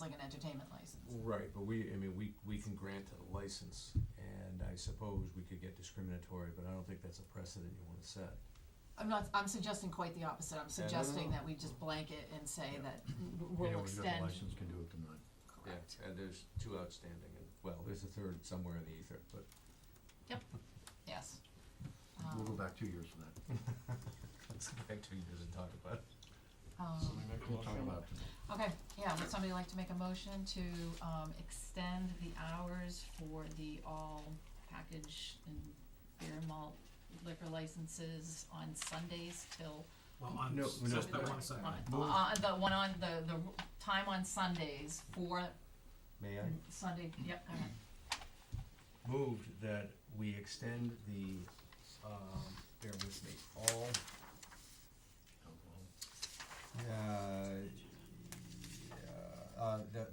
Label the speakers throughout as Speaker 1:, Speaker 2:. Speaker 1: like an entertainment license.
Speaker 2: Right, but we, I mean, we, we can grant a license, and I suppose we could get discriminatory, but I don't think that's a precedent you wanna set.
Speaker 1: I'm not, I'm suggesting quite the opposite, I'm
Speaker 2: no,
Speaker 1: suggesting
Speaker 2: no.
Speaker 1: that we just blanket and say
Speaker 2: Yeah.
Speaker 1: that
Speaker 3: Mm,
Speaker 1: we'll
Speaker 4: Anyone who's got
Speaker 1: extend,
Speaker 4: a license can do it tonight.
Speaker 1: correct,
Speaker 2: And there's two outstanding, and, well, there's a third somewhere in the ether, but.
Speaker 1: yes.
Speaker 4: We'll go
Speaker 1: Um,
Speaker 4: back two years for that.
Speaker 2: Let's go back two years and talk about it.
Speaker 1: um,
Speaker 4: We'll talk about it tonight.
Speaker 1: Okay, yeah, would somebody like to make a motion to, um, extend the hours for the all package and beer and malt liquor licenses on Sundays till?
Speaker 3: Well, on,
Speaker 2: No,
Speaker 3: s-
Speaker 2: no.
Speaker 3: just that one second.
Speaker 1: On, uh, the one on, the, the time on Sundays for
Speaker 2: May I?
Speaker 1: Sunday, yep, go ahead.
Speaker 2: Moved that we extend the, um, bear with me, all,
Speaker 4: Alcohol.
Speaker 2: uh, uh, the,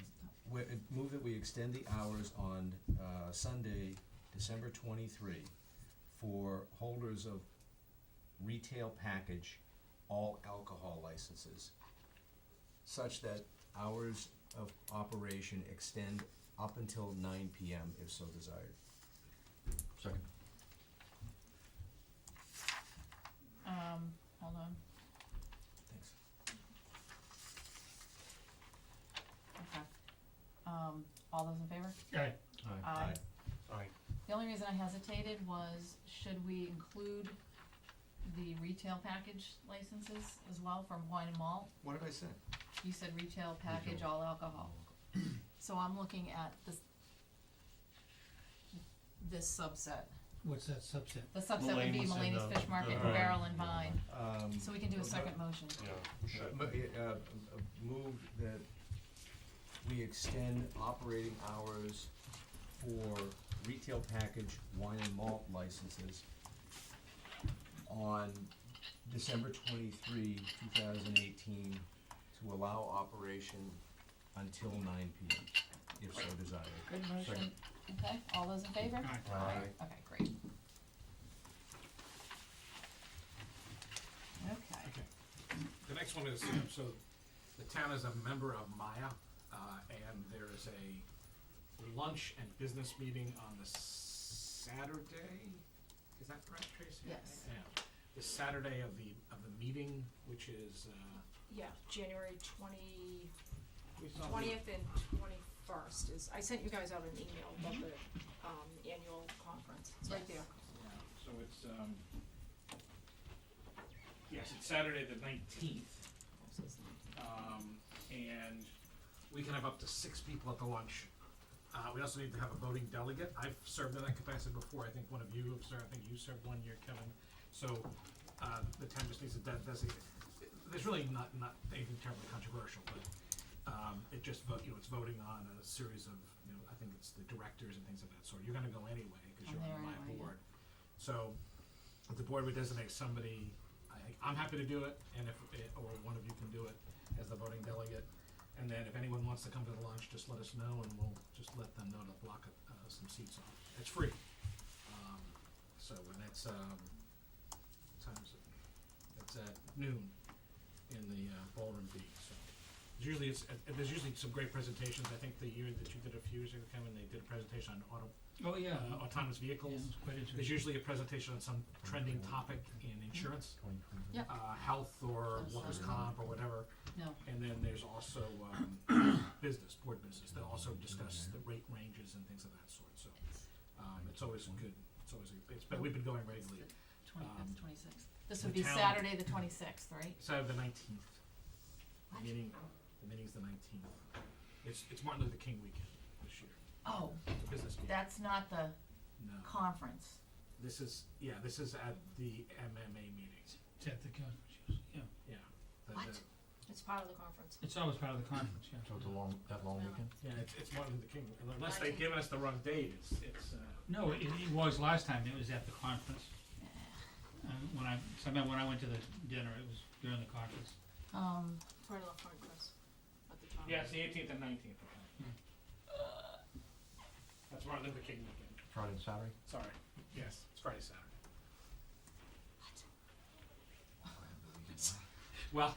Speaker 2: we, move that we extend the hours on, uh, Sunday, December twenty-three for holders of retail package, all alcohol licenses, such that hours of operation extend up until nine PM if so desired.
Speaker 4: Second.
Speaker 1: Um, hold on,
Speaker 2: Thanks.
Speaker 1: okay. Um, all those in favor?
Speaker 3: Aye.
Speaker 4: Aye.
Speaker 1: Aye.
Speaker 3: Aye.
Speaker 1: The only reason I hesitated was, should we include the retail package licenses as well from wine and malt?
Speaker 2: What did I say?
Speaker 1: You said retail package,
Speaker 4: Retail.
Speaker 1: all alcohol. So I'm looking at this, this subset.
Speaker 5: What's that subset?
Speaker 1: The subset would be
Speaker 3: Mulaney's and,
Speaker 1: Mulaney's
Speaker 3: uh,
Speaker 1: Fish Market,
Speaker 3: uh,
Speaker 1: Barrel and Vine.
Speaker 2: Um,
Speaker 1: So we can do a second motion.
Speaker 3: Yeah.
Speaker 2: mo- uh, uh, move that we extend operating hours for retail package wine and malt licenses on December twenty-three, two thousand eighteen, to allow operation until nine P M, if so desired.
Speaker 1: Good motion. Okay, all those in favor?
Speaker 3: Aye.
Speaker 1: Okay, great. Okay.
Speaker 3: Okay. The next one is, um, so the town is a member of Maya, uh, and there is a lunch and business meeting on the Saturday. Is that correct, Tracy?
Speaker 1: Yes.
Speaker 3: Yeah. The Saturday of the, of the meeting, which is, uh.
Speaker 6: Yeah, January twenty, twentieth and twenty-first is, I sent you guys out an email about the, um, annual conference, it's right
Speaker 1: Yes.
Speaker 6: there.
Speaker 3: Yeah, So it's, um, yes, it's Saturday the nineteenth. Um, and we can have up to six people at the lunch. Uh, we also need to have a voting delegate. I've served in that capacity before. I think one of you have served, I think you served one year, Kevin. So, uh, the town just needs to de- designate, there's really not, not anything terribly controversial, but, um, it just vote, you know, it's voting on a series of, you know, I think it's the directors and things of that sort. You're gonna go anyway, cause
Speaker 1: I'm
Speaker 3: you're
Speaker 1: there
Speaker 3: on my
Speaker 1: anyway, yeah.
Speaker 3: board. So, if the board would designate somebody, I, I'm happy to do it, and if, eh, or one of you can do it as the voting delegate. And then if anyone wants to come to the lunch, just let us know and we'll just let them know to block, uh, some seats off. It's free. Um, so, and that's, um, what time is it? It's at uh, noon in the uh, ballroom B, so. there's Usually it's, uh, there's usually some great presentations. I think the year that you did a few years ago, Kevin, they did a presentation on auto,
Speaker 5: Oh, yeah.
Speaker 3: uh, autonomous
Speaker 5: Yeah,
Speaker 3: vehicles.
Speaker 5: it's quite
Speaker 3: There's
Speaker 5: interesting.
Speaker 3: usually a presentation on some trending topic in insurance,
Speaker 1: Yep.
Speaker 3: uh, health or workers' comp or whatever.
Speaker 1: No,
Speaker 3: And then there's also, um, business, board business, they'll also discuss the rate ranges and things of that sort, so,
Speaker 1: it's
Speaker 3: um, it's always good, it's always, a- it's, but we've been going regularly. Um,
Speaker 1: twenty-fifth, twenty-sixth. This would
Speaker 3: the
Speaker 1: be
Speaker 3: town-
Speaker 1: Saturday, the twenty-sixth, right?
Speaker 3: Saturday the nineteenth,
Speaker 1: What?
Speaker 3: the meeting, the meeting's the nineteenth. It's, it's Martin Luther King weekend this year,
Speaker 1: Oh,
Speaker 3: it's a business meeting.
Speaker 1: that's not the
Speaker 3: No,
Speaker 1: conference.
Speaker 3: this is, yeah, this is at the MMA meeting,
Speaker 5: It's at the conference, yes. yeah.
Speaker 3: yeah. The-
Speaker 1: What?
Speaker 3: the-
Speaker 6: It's part of the conference.
Speaker 5: It's always part of the conference, yeah.
Speaker 4: So it's a long, that long weekend?
Speaker 3: Yeah, it's, it's Martin Luther King, unless they've given us the wrong date, it's, it's, uh.
Speaker 5: No, it, it was last time, it was at the conference. Um, when I, so I remember when I went to the dinner, it was during the conference.
Speaker 1: Um,
Speaker 6: It's right on the front, Chris, at the top.
Speaker 3: Yeah, it's the eighteenth and nineteenth.
Speaker 5: Hmm.
Speaker 3: Hmm. That's Martin Luther King weekend.
Speaker 4: Friday and Saturday?
Speaker 3: Sorry. Yes, it's Friday, Saturday. Well,